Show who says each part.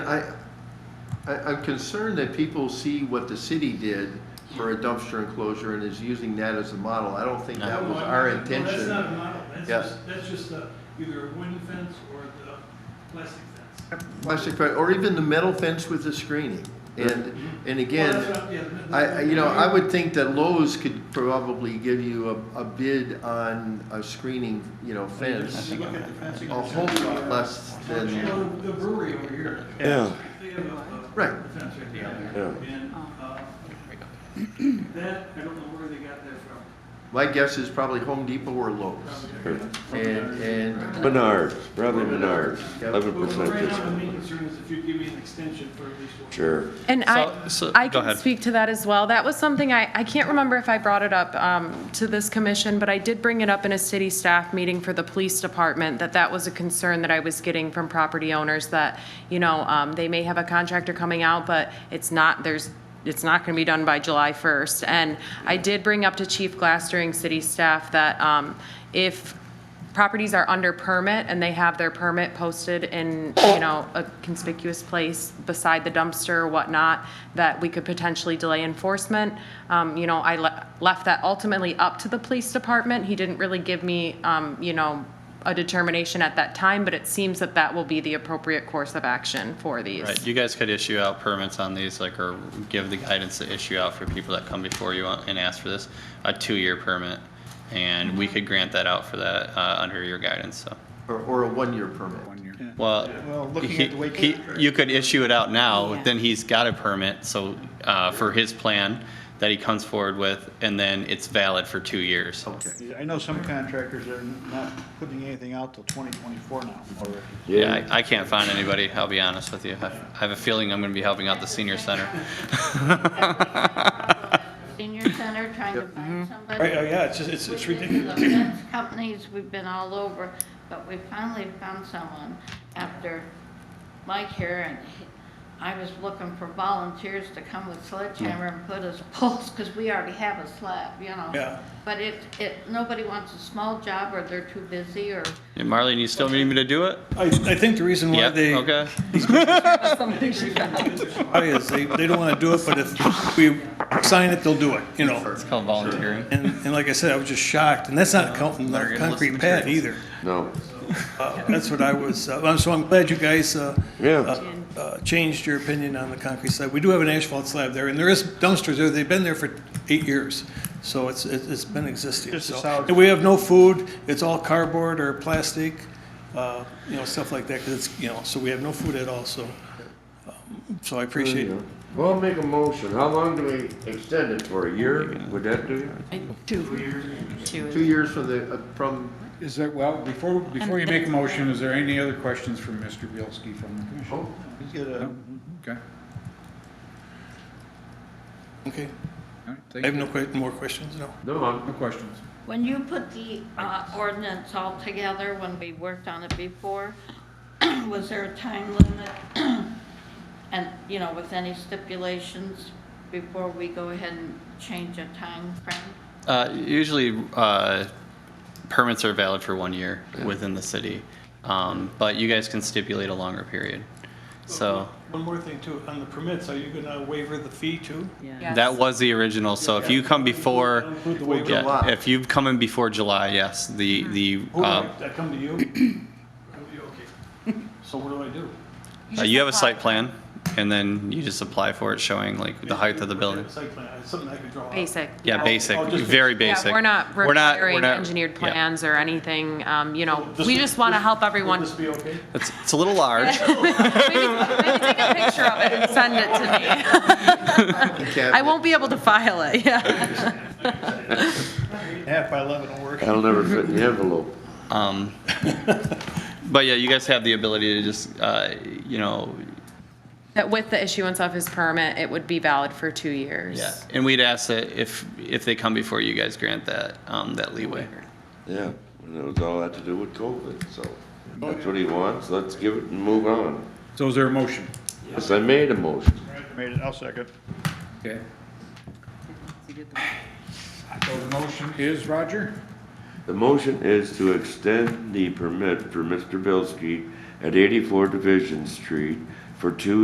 Speaker 1: I, I, I'm concerned that people see what the city did for a dumpster enclosure and is using that as a model. I don't think that was
Speaker 2: No,
Speaker 1: our
Speaker 2: no,
Speaker 1: intention.
Speaker 2: That's not a model, that's
Speaker 1: Yeah.
Speaker 2: just, that's just uh, either a wooden fence or the plastic fence.
Speaker 1: Plastic, fence, or even the metal fence with the screening. And, and
Speaker 2: Well, that's
Speaker 1: again,
Speaker 2: what- yeah, the- the-
Speaker 1: I, I- you know, I would think that Lowe's could probably give you a, a bid on a screening, you know, fence.
Speaker 2: You look at the fencing.
Speaker 1: A whole lot less
Speaker 2: You
Speaker 1: than,
Speaker 2: know, The brewery over here.
Speaker 3: Yeah.
Speaker 2: They have a- a
Speaker 1: Right.
Speaker 2: fence right down there.
Speaker 3: Yeah.
Speaker 2: And, uh, that, I don't know where they got that from.
Speaker 1: my guess is probably Home Depot or Lowe's.
Speaker 2: Probably-
Speaker 1: And, and
Speaker 3: Menards, probably Menards, eleven
Speaker 2: But
Speaker 3: percent
Speaker 2: right now, the
Speaker 3: discount.
Speaker 2: main concern is if you give me an extension for at least one.
Speaker 3: Sure.
Speaker 4: And I,
Speaker 5: So- so-
Speaker 4: I
Speaker 5: go
Speaker 4: can
Speaker 5: ahead.
Speaker 4: speak to that as well. That was something I, I can't remember if I brought it up um, to this commission, but I did bring it up in a city staff meeting for the police department, that that was a concern that I was getting from property owners, that, you know, um, they may have a contractor coming out, but it's not, there's, it's not going to be done by July 1st. And I did bring up to Chief Glass during city staff that um, if properties are under permit and they have their permit posted in, you know, a conspicuous place beside the dumpster or whatnot, that we could potentially delay enforcement. Um, you know, I le- left that ultimately up to the police department. He didn't really give me, um, you know, a determination at that time, but it seems that that will be the appropriate course of action for these.
Speaker 5: Right, you guys could issue out permits on these, like, or give the guidance to issue out for people that come before you and ask for this, a two-year permit. And we could grant that out for that, uh, under your guidance, so.
Speaker 1: or, or a one-year permit.
Speaker 5: Well, he, he, you could issue it out now,
Speaker 4: Yeah.
Speaker 5: then he's got a permit, so, uh, for his plan that he comes forward with, and then it's valid for two years.
Speaker 6: I know some contractors are not putting anything out till 2024 now already.
Speaker 5: Yeah, I, I can't find anybody, I'll be honest with you. I I have a feeling I'm gonna be helping out the senior center.
Speaker 7: senior center trying to find somebody.
Speaker 2: Right, oh, yeah, it's just- it's- it's
Speaker 7: We've been to the fence Companies, we've been all over, but we finally found someone after Mike here, and he- I was looking for volunteers to come with sledgehammer and put us poles, because we already have a slab, you know?
Speaker 2: Yeah.
Speaker 7: But it, it, nobody wants a small job, or they're too busy, or
Speaker 5: And Marlene, you still need me to do it?
Speaker 8: I, I think the reason why
Speaker 5: Yeah,
Speaker 8: they,
Speaker 5: okay.
Speaker 8: why is they, they don't want to do it, but if we sign it, they'll do it, you know?
Speaker 5: It's called volunteering.
Speaker 8: And, and like I said, I was just shocked, and that's not counting the concrete pad either.
Speaker 3: No.
Speaker 8: Uh, That's what I was, uh, I'm- so I'm glad you guys, uh,
Speaker 3: Yeah.
Speaker 8: uh, uh, changed your opinion on the concrete slab. We do have an asphalt slab there, and there is dumpsters there, they've been there for eight years, so it's, it's it's been existing,
Speaker 6: Just a
Speaker 8: so.
Speaker 6: solid-
Speaker 8: And we have no food, it's all cardboard or plastic, uh, you know, stuff like that, because it's, you know, so we have no food at all, so. um, So I appreciate it.
Speaker 3: Well, make a motion. How long do we extend it for? A year? Would that do you?
Speaker 1: Two years from the, uh, from,
Speaker 9: Is there, well, before, before you make a motion, is there any other questions from Mr. Bielski from the commission?
Speaker 6: Let's get a-
Speaker 9: Okay,
Speaker 8: Okay,
Speaker 9: all right,
Speaker 8: I have
Speaker 9: thank you.
Speaker 8: no que, more questions, no.
Speaker 3: No, I'm
Speaker 9: No questions.
Speaker 7: When you put the uh, ordinance all together, when we worked on it before, was there a time limit? And, you know, with any stipulations before we go ahead and change a time frame?
Speaker 5: Uh, Usually, uh, permits are valid for one year within the city, Um, but you guys can stipulate a longer period. So
Speaker 8: One more thing too, on the permits, are you gonna waiver the fee too?
Speaker 5: that was the original, so if you come before,
Speaker 8: Include the waiver?
Speaker 5: yeah, if you've come in before July, yes, the,
Speaker 4: Mm-hmm.
Speaker 5: the,
Speaker 8: Who do I,
Speaker 5: uh,
Speaker 8: I come to you? Okay. So what do I do?
Speaker 5: uh, you have a site plan, and then you just apply for it showing like the height of the building.
Speaker 8: Site plan, it's something I could draw out.
Speaker 4: Basic.
Speaker 5: Yeah, basic,
Speaker 8: Oh, just-
Speaker 5: very basic.
Speaker 4: Yeah, we're not
Speaker 5: We're not- we're
Speaker 4: requiring
Speaker 5: not-
Speaker 4: engineered
Speaker 5: yeah.
Speaker 4: plans or anything, um, you know,
Speaker 8: This
Speaker 4: we
Speaker 8: would-
Speaker 4: just want to
Speaker 8: this-
Speaker 4: help everyone
Speaker 8: Would this be okay?
Speaker 5: It's it's a little large.
Speaker 4: Maybe, maybe take a picture of it and send it to me. I won't be able to file it, yeah.
Speaker 6: Half by 11 will work.
Speaker 3: That'll never fit in the envelope.
Speaker 5: Um, But yeah, you guys have the ability to just, uh, you know,
Speaker 4: That with the issuance of his permit, it would be valid for two years.
Speaker 5: Yeah, and we'd ask that if, if they come before you guys grant that, um, that leeway.
Speaker 3: Yeah, and it was all had to do with COVID, so that's what he wants. Let's give it and move on.
Speaker 9: So is there a motion?
Speaker 3: Yes, I made a motion.
Speaker 6: Made it, I'll second.
Speaker 9: Okay. So the motion is, Roger?
Speaker 3: The motion is to extend the permit for Mr. Bilski at eighty-four Division Street for two